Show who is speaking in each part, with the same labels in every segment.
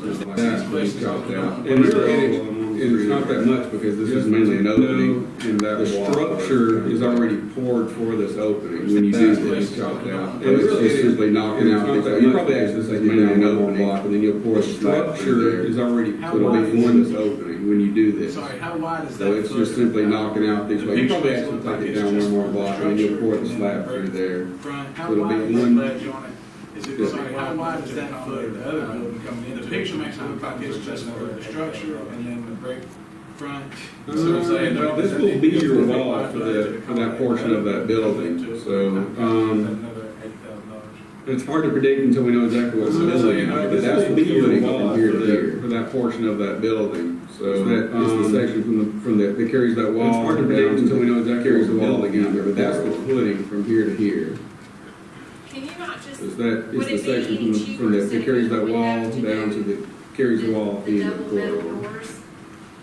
Speaker 1: just like
Speaker 2: That's
Speaker 1: these places
Speaker 2: what
Speaker 1: don't
Speaker 2: we got
Speaker 1: know.
Speaker 2: there. And it's- and it's- and it's not that much because this is mainly an opening.
Speaker 3: in that
Speaker 2: The structure is already poured for this opening.
Speaker 3: When you do
Speaker 2: That's what
Speaker 3: this.
Speaker 2: we got there.
Speaker 1: And
Speaker 2: And it's
Speaker 3: really,
Speaker 2: just simply knocking
Speaker 3: it's
Speaker 2: out,
Speaker 3: not
Speaker 2: this-
Speaker 3: that
Speaker 2: you
Speaker 3: much.
Speaker 2: probably access
Speaker 3: It's
Speaker 2: that mainly an
Speaker 3: mainly an
Speaker 2: opening
Speaker 3: opening.
Speaker 2: block, and then you'll pour a
Speaker 3: The structure
Speaker 2: structure is already
Speaker 1: How
Speaker 2: put
Speaker 1: wide
Speaker 2: away
Speaker 1: is
Speaker 2: on
Speaker 1: it?
Speaker 2: this opening when you do this.
Speaker 1: Sorry, how wide is that?
Speaker 2: So it's just
Speaker 1: footprint?
Speaker 2: simply knocking out these,
Speaker 1: The
Speaker 2: like, you probably
Speaker 1: pictures
Speaker 2: actually
Speaker 1: look like
Speaker 2: take it
Speaker 1: it's
Speaker 2: down
Speaker 1: just
Speaker 2: one more block, and then you'll pour the
Speaker 1: structure
Speaker 2: slab
Speaker 1: and
Speaker 2: through there.
Speaker 1: Brian, how
Speaker 2: It'll be
Speaker 1: wide is the
Speaker 2: one-
Speaker 1: ledge on it? Is it,
Speaker 2: Yes.
Speaker 1: sorry, how wide is that foot, the other building coming in? The picture makes it look like it's just the structure and then the brick front.
Speaker 2: Uh,
Speaker 1: So I'm saying,
Speaker 2: well,
Speaker 1: no,
Speaker 2: this will be your
Speaker 1: it's-
Speaker 2: wall for that- for that portion of that building. So, um,
Speaker 1: Another eight thousand dollars.
Speaker 2: It's hard to predict until we know exactly what's
Speaker 1: Really?
Speaker 2: building, but
Speaker 3: This
Speaker 2: that's
Speaker 3: will
Speaker 2: the
Speaker 3: be your
Speaker 2: building
Speaker 3: wall
Speaker 2: from here to
Speaker 3: for
Speaker 2: there,
Speaker 3: that-
Speaker 2: for that portion of that building. So
Speaker 3: So
Speaker 2: that is
Speaker 3: um,
Speaker 2: the section from the, from the, that carries that wall.
Speaker 3: It's hard to predict
Speaker 2: down
Speaker 3: until we know
Speaker 2: that
Speaker 3: exactly
Speaker 2: Carries the
Speaker 3: what
Speaker 2: wall
Speaker 3: building
Speaker 2: again,
Speaker 3: is.
Speaker 2: but that's the footing from here to here.
Speaker 4: Can you not just,
Speaker 2: Is that,
Speaker 4: Would
Speaker 2: is
Speaker 4: it
Speaker 2: the
Speaker 4: be
Speaker 2: section from
Speaker 4: any
Speaker 2: the, from
Speaker 4: cheaper
Speaker 2: that, that
Speaker 4: city
Speaker 2: carries that
Speaker 4: if we
Speaker 2: wall
Speaker 4: have to
Speaker 2: down to
Speaker 4: do
Speaker 2: the, carries the wall
Speaker 4: the
Speaker 2: into the
Speaker 4: double metal
Speaker 2: corridor.
Speaker 4: doors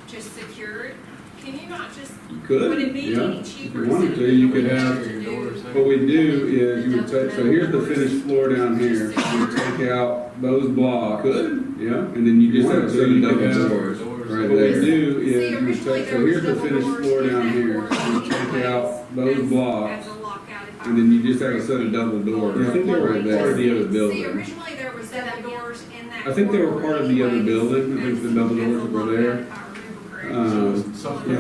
Speaker 4: just secured? Can you not just,
Speaker 2: You
Speaker 4: would it
Speaker 2: could,
Speaker 4: be
Speaker 2: yeah.
Speaker 4: any
Speaker 2: If
Speaker 4: cheaper?
Speaker 2: you wanted to,
Speaker 4: instead
Speaker 2: you
Speaker 4: of
Speaker 2: could
Speaker 4: what we
Speaker 2: have,
Speaker 4: to do?
Speaker 2: what we do is you would take, so here's the finished floor down here. You take out those blocks. Could, yeah, and then you just have
Speaker 3: So
Speaker 2: seven
Speaker 3: you could
Speaker 2: double
Speaker 3: have-
Speaker 2: doors. Right,
Speaker 3: Right
Speaker 2: what we
Speaker 3: there.
Speaker 2: do
Speaker 4: See,
Speaker 2: is, you
Speaker 4: originally
Speaker 2: take,
Speaker 4: there
Speaker 2: so here's the
Speaker 4: was
Speaker 2: finished
Speaker 4: double
Speaker 2: floor
Speaker 4: doors
Speaker 2: down
Speaker 4: in
Speaker 2: here,
Speaker 4: that corner
Speaker 2: you take out those
Speaker 4: As-
Speaker 2: blocks,
Speaker 4: As a lockout. if I
Speaker 2: and then you just have
Speaker 4: remember
Speaker 2: a set of
Speaker 4: correctly.
Speaker 2: double doors,
Speaker 3: Yeah, I think they were
Speaker 2: right there,
Speaker 3: part of
Speaker 2: the other
Speaker 4: See,
Speaker 2: building.
Speaker 4: originally there was double doors in that.
Speaker 2: I think they were
Speaker 4: corridor
Speaker 2: part of the other
Speaker 4: anyways,
Speaker 2: building, I think the
Speaker 4: as-
Speaker 2: double
Speaker 4: as a
Speaker 2: doors were
Speaker 4: lockout,
Speaker 2: there.
Speaker 4: if I remember
Speaker 2: Um,
Speaker 1: So
Speaker 4: correctly.
Speaker 2: yeah, I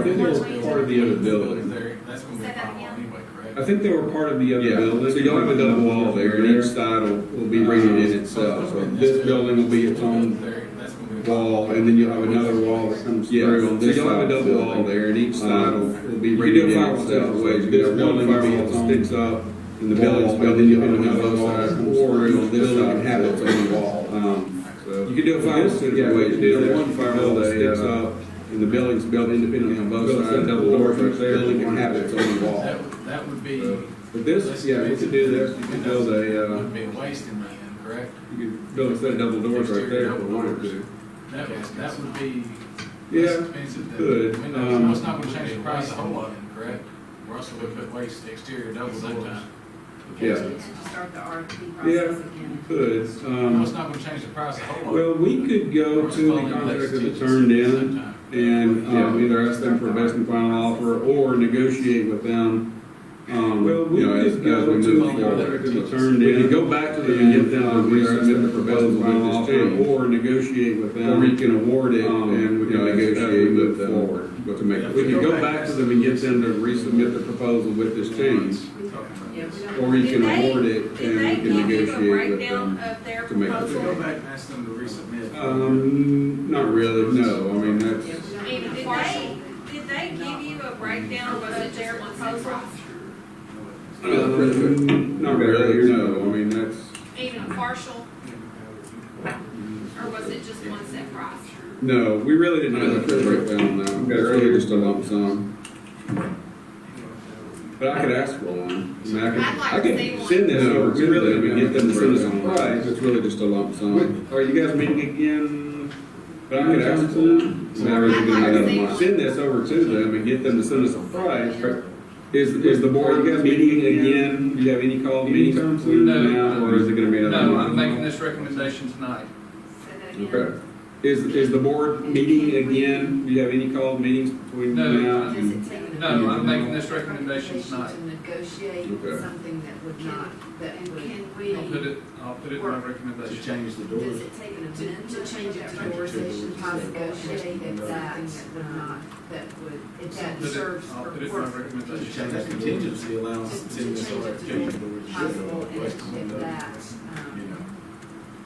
Speaker 2: think they were part of the other building.
Speaker 1: There, That's gonna be a
Speaker 4: Say that
Speaker 1: problem
Speaker 4: again.
Speaker 1: anyway, correct?
Speaker 2: I think they were part of the other
Speaker 3: Yeah.
Speaker 2: building. So you'll have a double wall there, and each side will, will be rated in itself. So this building will be its own
Speaker 1: There, that's gonna be a problem.
Speaker 2: wall, and then you'll have another wall that comes through on this side.
Speaker 3: So you'll have a double
Speaker 2: of the
Speaker 3: wall Uh,
Speaker 2: building.
Speaker 3: there, and each side will will be
Speaker 2: Um, You
Speaker 3: rated
Speaker 2: can do
Speaker 3: in
Speaker 2: firewall
Speaker 3: itself.
Speaker 2: several ways.
Speaker 3: This
Speaker 2: This
Speaker 3: building
Speaker 2: one
Speaker 3: will be
Speaker 2: firewall
Speaker 3: its own
Speaker 2: sticks up,
Speaker 3: in
Speaker 2: and the building's built, and
Speaker 3: you
Speaker 2: you'll
Speaker 3: have
Speaker 2: have
Speaker 3: another
Speaker 2: another
Speaker 3: side,
Speaker 2: side, or
Speaker 3: or it'll,
Speaker 2: it'll,
Speaker 3: this
Speaker 2: this
Speaker 3: building
Speaker 2: side
Speaker 3: can have its own wall.
Speaker 2: Um,
Speaker 3: So-
Speaker 2: You can do a firewall
Speaker 3: This-
Speaker 2: several
Speaker 3: yeah,
Speaker 2: ways.
Speaker 3: you
Speaker 2: You
Speaker 3: can do
Speaker 2: can
Speaker 3: that.
Speaker 2: one firewall that uh, sticks
Speaker 3: Yeah.
Speaker 2: up, and the building's built independently on both
Speaker 3: Built
Speaker 2: sides.
Speaker 3: double doors
Speaker 2: Or each
Speaker 3: right there.
Speaker 2: Building can have its own wall.
Speaker 1: That would, that would be,
Speaker 2: So, But this, yeah, you could do this, you could build a, uh,
Speaker 1: would be a waste in my end, correct?
Speaker 2: you could build a set of double doors right there if you wanted to.
Speaker 1: That would, that would be less
Speaker 2: Yeah,
Speaker 1: expensive than.
Speaker 2: could,
Speaker 1: I mean,
Speaker 2: um,
Speaker 1: It's not gonna change the price of the whole of it, correct? We're also gonna put waste exterior double doors.
Speaker 2: Yeah.
Speaker 5: To start the RFP
Speaker 2: Yeah.
Speaker 5: process again.
Speaker 2: could,
Speaker 1: No,
Speaker 2: um,
Speaker 1: it's not gonna change the price of the whole
Speaker 2: well,
Speaker 1: lot.
Speaker 2: we could go to the contract that was turned in, and um, either ask them for best and final offer or negotiate with them. Um,
Speaker 3: Well, we
Speaker 2: you know, as,
Speaker 3: just
Speaker 2: as
Speaker 3: go
Speaker 2: we
Speaker 3: to
Speaker 2: move
Speaker 1: the
Speaker 2: forward,
Speaker 1: contract
Speaker 2: we
Speaker 1: that's
Speaker 2: turned
Speaker 3: We
Speaker 2: in.
Speaker 3: can go back to them and
Speaker 2: and
Speaker 3: get them to
Speaker 2: um, either ask
Speaker 3: resubmit
Speaker 2: them
Speaker 3: the
Speaker 2: for best
Speaker 3: proposal
Speaker 2: and final
Speaker 3: with this
Speaker 2: offer
Speaker 3: change.
Speaker 2: or negotiate with them.
Speaker 3: Or we can award it
Speaker 2: Um,
Speaker 3: and we
Speaker 2: you know,
Speaker 3: can
Speaker 2: as- as we
Speaker 3: negotiate
Speaker 2: move
Speaker 3: with them.
Speaker 2: forward, But to make,
Speaker 1: Yeah,
Speaker 2: we can go back to them and get them to resubmit the proposal with this change,
Speaker 5: Yeah, we don't-
Speaker 2: or you
Speaker 4: Did
Speaker 2: can
Speaker 4: they-
Speaker 2: award it and
Speaker 4: Did
Speaker 2: we
Speaker 4: they
Speaker 2: can
Speaker 4: give you a
Speaker 2: negotiate with
Speaker 4: breakdown
Speaker 2: them.
Speaker 4: of their
Speaker 2: to make it
Speaker 4: proposal?
Speaker 2: go
Speaker 1: and ask them to resubmit.
Speaker 2: Um, not really, no, I mean, that's.
Speaker 5: yeah, we don't-
Speaker 4: And did they, did they give you a breakdown of their proposal?
Speaker 2: Um, Not really, no, I mean, that's,
Speaker 4: Even partial, or was it just one set price?
Speaker 2: no, we really didn't have a breakdown on that.
Speaker 3: Okay,
Speaker 2: It's
Speaker 3: earlier.
Speaker 2: really just a lump sum. But I could ask for one. I mean, I could,
Speaker 4: I'd like
Speaker 2: I
Speaker 4: to
Speaker 2: could
Speaker 4: see one.
Speaker 2: send this
Speaker 3: No,
Speaker 2: over
Speaker 3: we
Speaker 2: to
Speaker 3: really
Speaker 2: them and get them to send us a price. It's really just a lump sum. Are you guys meeting again? But I could ask for one. I mean, I really didn't
Speaker 4: I'd like to
Speaker 2: have
Speaker 4: see
Speaker 2: one.
Speaker 4: one.
Speaker 2: Send this over to them and get them to send us a price. Is, is the board, you guys meeting again? Do you have any call meetings
Speaker 3: Anytime
Speaker 6: soon?
Speaker 2: now, or is it gonna be another
Speaker 6: No,
Speaker 2: month?
Speaker 6: I'm making this recommendation tonight.
Speaker 4: Say that again.
Speaker 2: Okay. Is, is the board meeting again? Do you have any called meetings between
Speaker 6: No.
Speaker 2: now?
Speaker 5: Does
Speaker 2: and-
Speaker 5: it take? a-
Speaker 6: No, I'm making this recommendation tonight.
Speaker 5: To negotiate
Speaker 2: Okay.
Speaker 5: something that would not, that
Speaker 4: And
Speaker 5: would.
Speaker 4: can
Speaker 6: I'll put it, I'll put it in my
Speaker 1: To
Speaker 6: recommendation.
Speaker 1: change the
Speaker 5: Does
Speaker 1: doors.
Speaker 5: it take an amendment to change it to conversation, to negotiate that, that would not, that would, if that
Speaker 6: Put it-
Speaker 5: serves
Speaker 6: I'll
Speaker 5: for
Speaker 6: put it in my
Speaker 5: work.
Speaker 1: To
Speaker 6: recommendation.
Speaker 1: change that contingency allowance that's in this RFP.
Speaker 5: Possible, and
Speaker 1: Waste
Speaker 5: if if
Speaker 1: window,
Speaker 5: that,
Speaker 1: You know,
Speaker 5: um,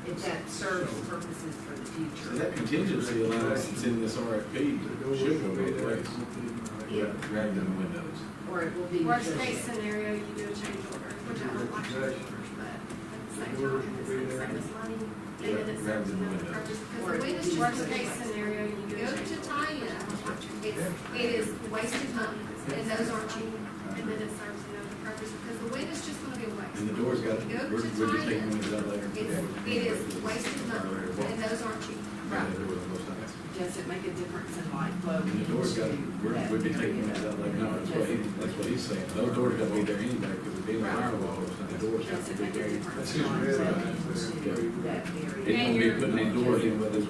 Speaker 5: if that serves purposes for
Speaker 4: um,
Speaker 5: the
Speaker 1: so
Speaker 5: future.
Speaker 1: that contingency allowance that's in this RFP should go both ways.
Speaker 5: Yeah.
Speaker 1: Rather than windows.
Speaker 5: Or it will be.
Speaker 4: Worst
Speaker 5: negotiated.
Speaker 4: case scenario, you do a change order, which I don't like change orders, but at the same time, if it's gonna save us money, even if it serves another purpose. Because the biggest worst case scenario, you go to tie-in, it's, it is wasted money, and those aren't cheap, and then it serves another purpose, because the wind is just gonna be a waste.
Speaker 1: And the doors got, we're,
Speaker 4: You go
Speaker 1: we're
Speaker 4: to
Speaker 1: just taking
Speaker 4: tie-in,
Speaker 1: windows out later.
Speaker 4: it's, it is wasted money, and those aren't cheap.
Speaker 1: Yeah, there were those times.
Speaker 5: Does it make a difference in light flow?
Speaker 1: And the doors got, we're,
Speaker 5: that
Speaker 1: we'd be taking
Speaker 5: area?
Speaker 1: windows out later. No, that's what he, that's what he's saying. Those doors gotta be there anyway, because it'd be in the firewall, so the doors have
Speaker 5: Does
Speaker 1: to
Speaker 5: it
Speaker 1: be
Speaker 5: make a
Speaker 1: there.
Speaker 5: difference
Speaker 1: That's
Speaker 5: in
Speaker 1: just
Speaker 5: light
Speaker 1: really
Speaker 5: flow
Speaker 1: bad.
Speaker 5: to that
Speaker 1: It
Speaker 5: area?
Speaker 1: won't be putting any doors in whether it's